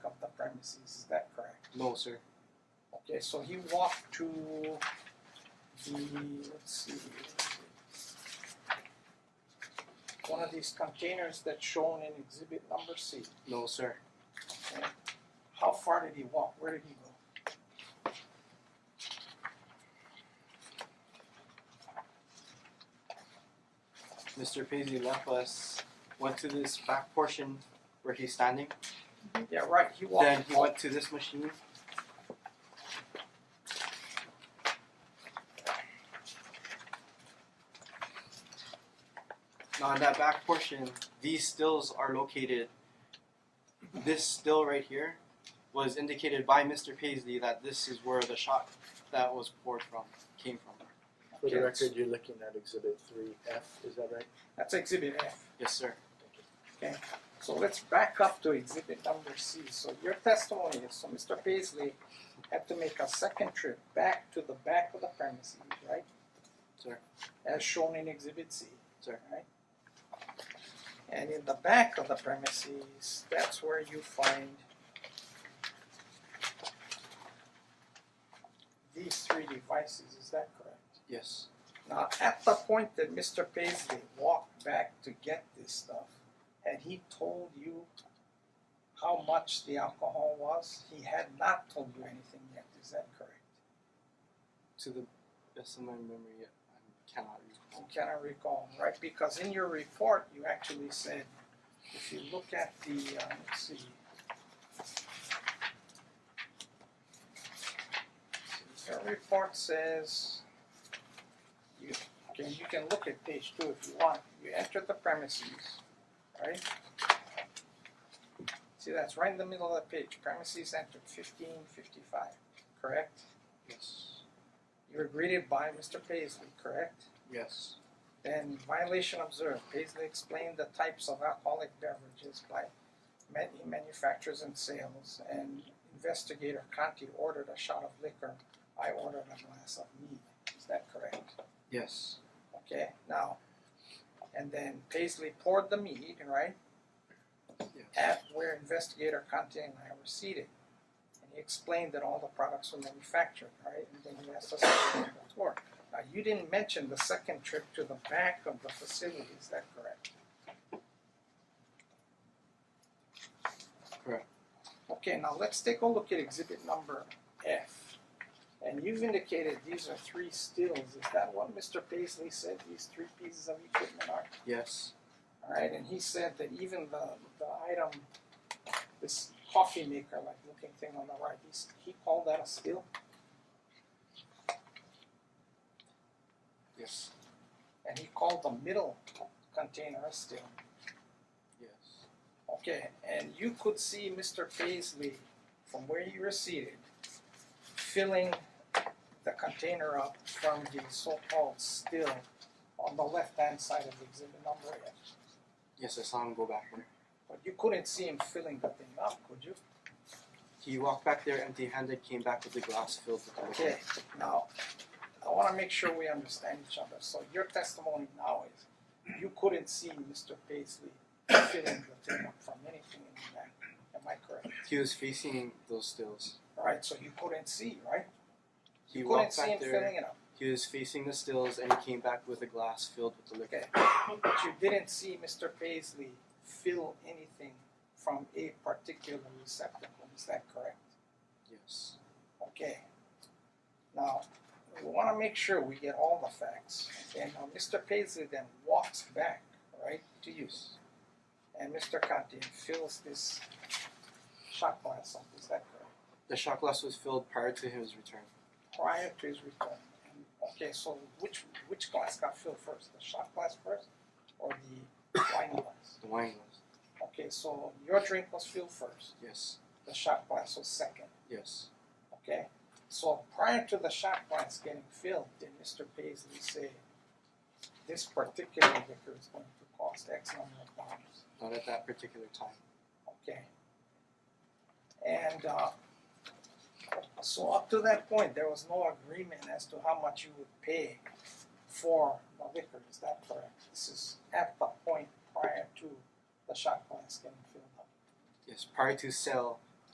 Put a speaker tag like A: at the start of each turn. A: premises, is that correct?
B: No, sir.
A: Okay, so he walked to the, let's see. One of these containers that's shown in exhibit number C.
B: No, sir.
A: Okay. How far did he walk? Where did he go?
B: Mr. Paisley left us, went to this back portion where he's standing.
A: Yeah, right, he walked.
B: Then he went to this machine. Now on that back portion, these stills are located. This still right here was indicated by Mr. Paisley that this is where the shot that was poured from came from.
C: For the
A: Yes.
C: record, you're looking at exhibit three F, is that right?
A: That's exhibit F.
B: Yes, sir.
A: So let's back up to exhibit number C. So your testimony is, so Mr. Paisley had to make a second trip back to the back of the premises, right?
B: Sir.
A: As shown in exhibit C.
B: Sir.
A: Right? And in the back of the premises, that's where you find these three devices, is that correct?
B: Yes.
A: Now, at the point that Mr. Paisley walked back to get this stuff, had he told you how much the alcohol was? He had not told you anything yet, is that correct?
B: To the best of my memory, I cannot
A: You
B: recall.
A: cannot recall, right? Because in your report, you actually said, if you look at the, uh, let's see. Your report says, you, okay, you can look at page two if you want, you enter the premises, right? See, that's right in the middle of the page, premises entered fifteen fifty-five, correct?
B: Yes.
A: You were greeted by Mr. Paisley, correct?
B: Yes.
A: Then violation observed, Paisley explained the types of alcoholic beverages by man- he manufactures and sales, and investigator Conti ordered a shot of liquor, I ordered a glass of mead, is that correct?
B: Yes.
A: Okay, now, and then Paisley poured the mead, right,
B: Yes.
A: at where investigator Conti and I were seated. And he explained that all the products were manufactured, right, and then he asked us to do the tour. Now, you didn't mention the second trip to the back of the facility, is that correct?
B: Correct.
A: Okay, now let's take a look at exhibit number F. And you've indicated these are three stills, is that what Mr. Paisley said these three pieces of equipment are?
B: Yes.
A: Alright, and he said that even the, the item, this coffee maker like looking thing on the right, he's, he called that a still?
B: Yes.
A: And he called the middle container a still.
B: Yes.
A: Okay, and you could see Mr. Paisley from where you were seated filling the container up from the so-called still on the left-hand side of exhibit number F.
B: Yes, I saw him go back there.
A: But you couldn't see him filling the thing up, could you?
B: He walked back there empty handed, came back with the glass filled with the
A: Okay, now, I wanna make sure we understand each other, so your testimony now is, you couldn't see Mr. Paisley filling the thing up from anything in the back, am I correct?
B: He was facing those stills.
A: Alright, so you couldn't see, right?
B: He
A: You couldn't
B: walked
A: see
B: back
A: him
B: there.
A: filling it up,
B: He was facing the stills and he came back with a glass filled with the liquor.
A: okay, but you didn't see Mr. Paisley fill anything from a particular receptacle, is that correct?
B: Yes.
A: Okay. Now, we wanna make sure we get all the facts, and now Mr. Paisley then walks back, right, to you. And Mr. Conti fills this shot glass up, is that correct?
B: The shot glass was filled prior to his return.
A: Prior to his return. And, okay, so which which glass got filled first, the shot glass first or the wine glass?
B: The wine glass.
A: Okay, so your drink was filled first,
B: Yes.
A: the shot glass was second.
B: Yes.
A: Okay, so prior to the shot glass getting filled, did Mr. Paisley say, this particular liquor is going to cost X number of dollars?
B: Not at that particular time.
A: Okay. And uh, so up to that point, there was no agreement as to how much you would pay for the liquor, is that correct? This is at the point prior to the shot glass getting filled up.
B: Yes. Prior to sale,